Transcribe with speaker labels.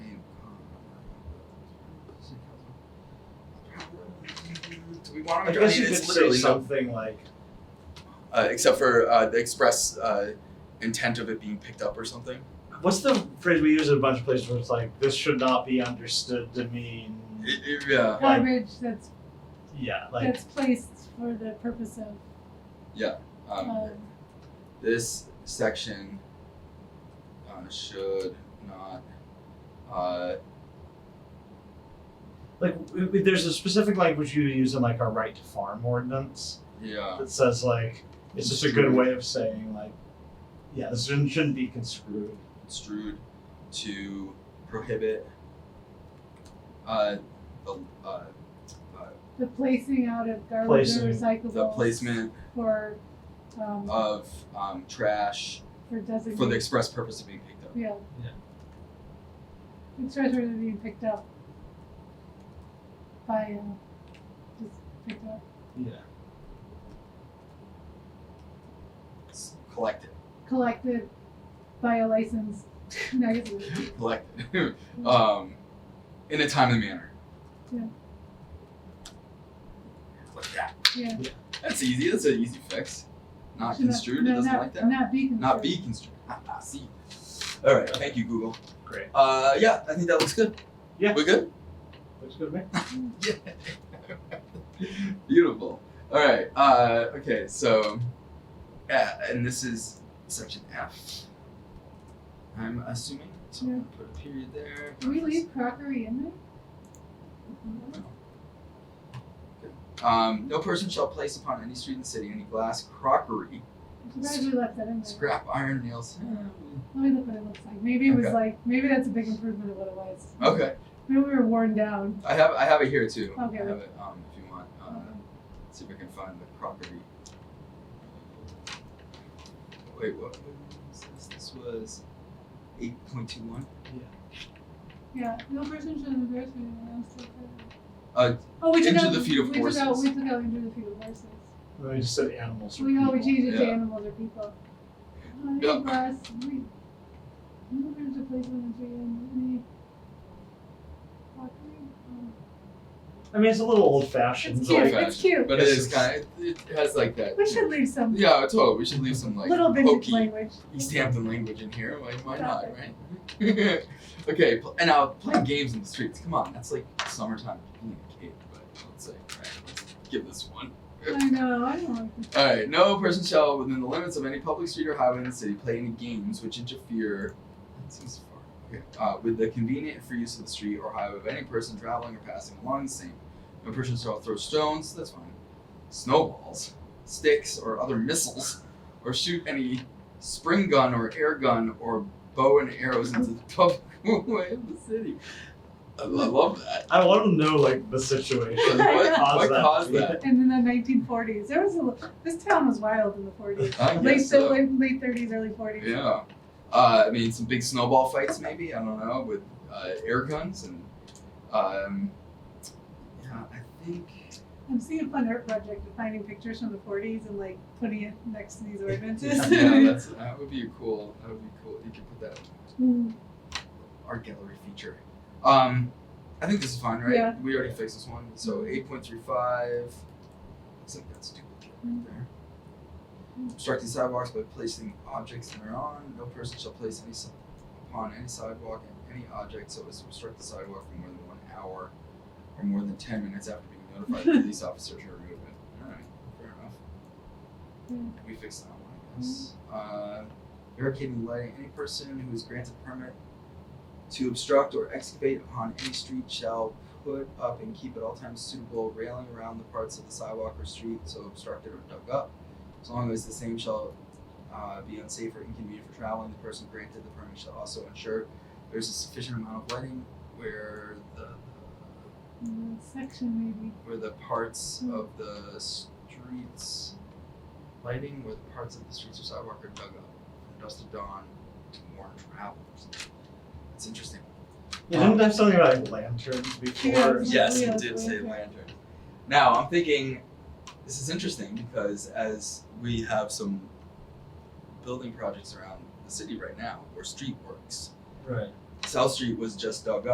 Speaker 1: So we want to
Speaker 2: I
Speaker 1: make sure, I
Speaker 2: guess
Speaker 1: mean,
Speaker 2: you could
Speaker 1: it's
Speaker 2: say
Speaker 1: literally no,
Speaker 2: something like,
Speaker 3: uh, except for uh, the express uh, intent of it being picked up or something.
Speaker 2: what's the phrase we use in a bunch of places where it's like, this should not be understood to mean,
Speaker 3: I- I- yeah.
Speaker 4: Garbage that's
Speaker 2: yeah, like,
Speaker 4: that's placed for the purpose of
Speaker 3: Um,
Speaker 4: um,
Speaker 3: this section uh, should not. Uh,
Speaker 2: like w- w- there's a specific language you use in like our right to farm ordinance
Speaker 3: yeah.
Speaker 2: that says like, it's just a good way of saying like, yeah, this shouldn't, shouldn't be construed.
Speaker 3: construed to prohibit uh, the, uh,
Speaker 4: the placing out of garbage
Speaker 2: Placing.
Speaker 4: or recyclables
Speaker 3: the placement
Speaker 4: for um,
Speaker 3: of um, trash
Speaker 4: for designated
Speaker 3: for the express purpose of being picked up.
Speaker 4: yeah.
Speaker 2: Yeah.
Speaker 4: It's treasure that's being picked up by uh, just picked up.
Speaker 2: Yeah.
Speaker 3: It's collected.
Speaker 4: collected by a licensed magazine.
Speaker 3: Collected. um, in a timely manner.
Speaker 4: Yeah.
Speaker 3: Like that.
Speaker 4: Yeah.
Speaker 3: That's easy. That's an easy fix. Not
Speaker 4: Should
Speaker 3: construed.
Speaker 4: no,
Speaker 3: it doesn't
Speaker 4: not,
Speaker 3: like that.
Speaker 4: Not be construed.
Speaker 3: Not be construed. Ah, ah, see. All right. Thank you, Google.
Speaker 2: Great.
Speaker 3: Uh, yeah, I think that looks good.
Speaker 2: Yeah.
Speaker 3: We're good.
Speaker 2: Looks good to me.
Speaker 3: Yeah. Beautiful. All right. Uh, okay. So, yeah, and this is section F. I'm assuming. So I'm gonna put a period there.
Speaker 4: Do we leave crockery in there?
Speaker 3: Um, no person shall place upon any street in the city any glass, crockery,
Speaker 4: I'm surprised we left that in there.
Speaker 3: scrap iron, nails.
Speaker 4: Let me look what it looks like. Maybe it was
Speaker 3: Okay.
Speaker 4: like maybe that's a big improvement of what it was.
Speaker 3: Okay.
Speaker 4: Maybe we were worn down.
Speaker 3: I have I have it here too.
Speaker 4: Okay.
Speaker 3: I have it um, if you want. Uh,
Speaker 4: Okay.
Speaker 3: see if I can find the property. Wait, what was this? This was 8.21.
Speaker 4: Yeah. No person should embarrass me when I'm still
Speaker 3: Uh,
Speaker 4: Oh we took
Speaker 3: Into
Speaker 4: out
Speaker 3: the feet of
Speaker 4: we Took out,
Speaker 3: horses.
Speaker 4: we took out into the feet of horses.
Speaker 2: Then we just said animals. or
Speaker 4: We oh we
Speaker 2: people.
Speaker 4: changed it to
Speaker 3: Yeah.
Speaker 4: animals or people. I
Speaker 3: Yeah.
Speaker 4: glass we no person should place one tree in any crockery. Um,
Speaker 2: I mean, it's a little old fashioned.
Speaker 4: It's
Speaker 3: old
Speaker 4: cute.
Speaker 2: Like,
Speaker 4: It's cute.
Speaker 3: but it is kind of, it, it has like that.
Speaker 4: We should leave some
Speaker 3: Yeah, totally. We should leave some like
Speaker 4: little vintage
Speaker 3: hokey
Speaker 4: language.
Speaker 3: East Hampton language in here. Why, why not,
Speaker 4: Got
Speaker 3: right? okay, pl- and now playing games in the streets. Come on, that's like summertime being a kid. But let's say, all right, let's give this one.
Speaker 4: I know. I don't like this.
Speaker 3: All right, no person shall, within the limits of any public street or highway in the city, play any games which interfere. That seems far. Okay. Uh, with the convenient and free use of the street or highway of any person traveling or passing along the same. No person shall throw stones. That's fine. Snowballs, sticks, or other missiles, or shoot any spring gun or air gun or bow and arrows into the public way of the city. I lo- love that.
Speaker 2: I want to know like the situation.
Speaker 3: What, what
Speaker 2: Caused that.
Speaker 3: caused that?
Speaker 4: And in the 1940s, there was a li- this town was wild in the 40s,
Speaker 3: I guess
Speaker 4: late
Speaker 3: so.
Speaker 4: late, late 30s, early 40s.
Speaker 3: Yeah. Uh, I mean, some big snowball fights, maybe. I don't know, with uh, air guns and. Um, yeah, I think.
Speaker 4: I'm seeing a fun art project of finding pictures from the 40s and like putting it next to these ordinances.
Speaker 3: Yeah, that's, that would be a cool. That would be cool. You could put that in
Speaker 4: Mm,
Speaker 3: the art gallery feature. Um, I think this is fine, right?
Speaker 4: Yeah.
Speaker 3: We already fixed this one. So eight point three five. Looks like that's duplicate right there. Obstructing sidewalks by placing objects thereon. No person shall place any si- upon any sidewalk and any object so as to obstruct the sidewalk for more than one hour or more than ten minutes after being notified the police officer to remove it. Alright, fair enough.
Speaker 4: Yeah.
Speaker 3: We fixed that one, I guess. Uh, barricading lighting. Any person who is granted permit to obstruct or excavate upon any street shall put up and keep at all times suitable railing around the parts of the sidewalk or street so obstructed or dug up. As long as the same shall uh, be unsafe or inconvenient for traveling, the person granted the permit shall also ensure there's a sufficient amount of lighting where the
Speaker 4: mm, section maybe.
Speaker 3: where the parts of the streets lighting where the parts of the streets or sidewalk are dug up from dusk to dawn to warn travelers. That's interesting.
Speaker 2: Yeah, didn't they have something about like lanterns before?
Speaker 4: Yeah, it's
Speaker 3: Yes,
Speaker 4: Yeah,
Speaker 3: it did
Speaker 4: it's
Speaker 3: say
Speaker 4: like-
Speaker 3: lantern. Now I'm thinking, this is interesting because as we have some building projects around the city right now, or street works,
Speaker 2: Right.
Speaker 3: South Street was just dug up.